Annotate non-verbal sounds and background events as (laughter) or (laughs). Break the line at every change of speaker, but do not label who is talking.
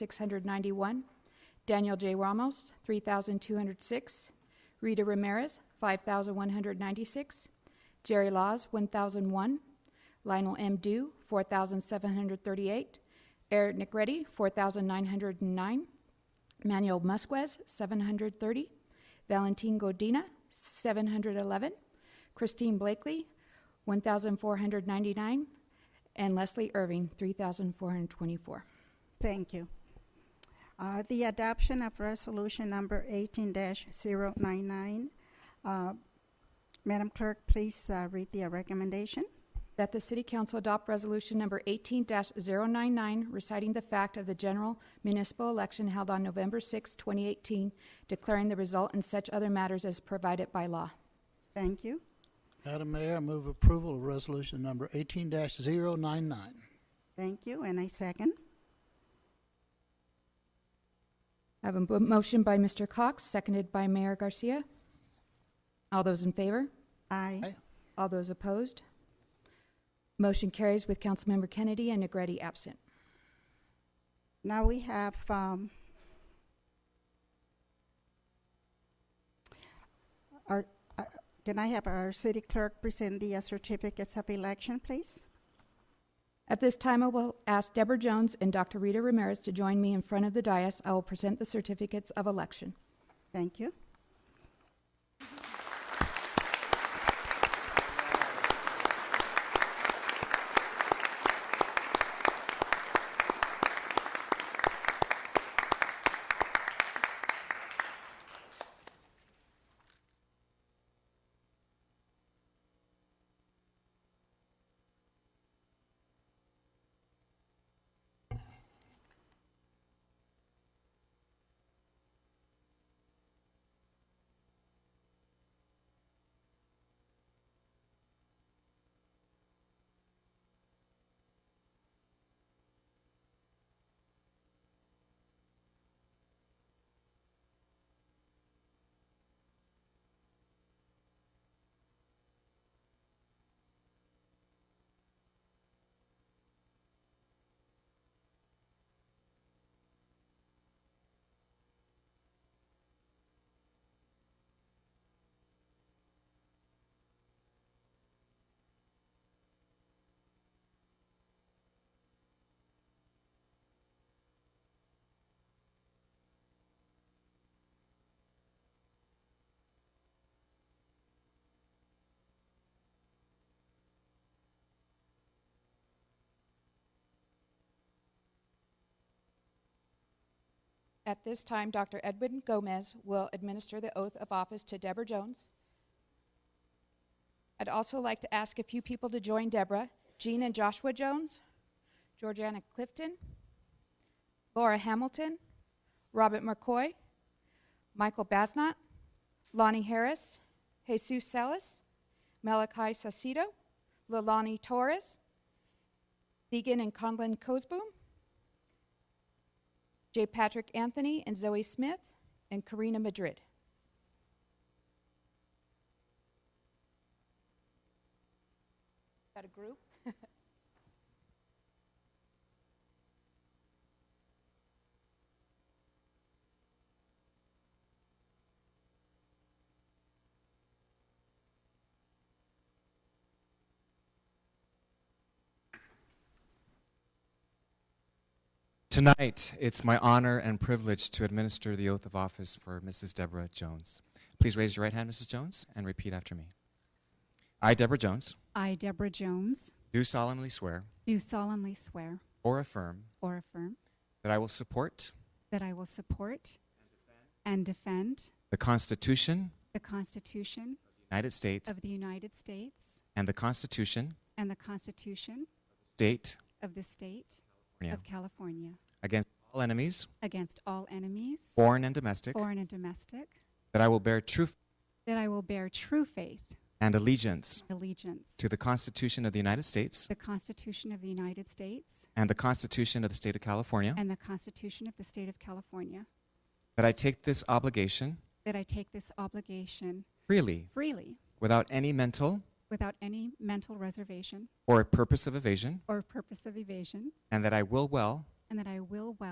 6,691. Daniel J. Ramos, 3,206. Rita Ramirez, 5,196. Jerry Laws, 1,001. Lionel M. Dew, 4,738. Eric Negretti, 4,909. Manuel Musquez, 730. Valentin Godina, 711. Christine Blakely, 1,499. And Leslie Irving, 3,424.
Thank you. Uh, The adoption of resolution number 18-099. Uh, Madam Clerk, please uh, read the recommendation.
That the City Council adopt Resolution Number 18-099, reciting the fact of the general municipal election held on November 6, 2018, declaring the result and such other matters as provided by law.
Thank you.
Madam Mayor, I move approval of resolution number eighteen 99
Thank you. And I second.
I have a bo- motion by Mr. Cox, seconded by Mayor Garcia. All those in favor?
Aye.
All those opposed? Motion carries with Councilmember Kennedy and Negretti absent.
Now we have um, our, uh, can I have our city clerk present the uh, certificates of election, please?
At this time, I will ask Deborah Jones and Dr. Rita Ramirez to join me in front of the dais. I will present the certificates of election.
Thank you.
At this time, Dr. Edwin Gomez will administer the oath of office to Deborah Jones. I'd also like to ask a few people to join Deborah Jean and Joshua Jones, Georgiana Clifton, Laura Hamilton, Robert McCoy, Michael Basnot, Lonnie Harris, Jesus Salas, Malachi Sacido, Lalani Torres, Deegan and Conlon Cosboom, J. Patrick Anthony and Zoe Smith, and Karina Madrid. Got a group? (laughs)
Tonight, it's my honor and privilege to administer the oath of office for Mrs. Deborah Jones. Please raise your right hand, Mrs. Jones, and repeat after me. I, Deborah Jones,
I, Deborah Jones,
do solemnly swear
do solemnly swear
or affirm
or affirm
that I will support
that I will support and defend
the Constitution
the Constitution
of the United States
of the United States
and the Constitution
and the Constitution
of the State
of the State
of California
of California
against all enemies,
against all enemies,
foreign and domestic,
foreign and domestic,
that I will bear true faith
that I will bear true faith
and allegiance
and allegiance
to the Constitution of the United States
the Constitution of the United States
and the Constitution of the State of California,
and the Constitution of the State of California,
that I take this obligation
that I take this obligation
freely
freely
without any mental
without any mental reservation
or purpose of evasion,
or purpose of evasion,
and that I will well
and that I will well.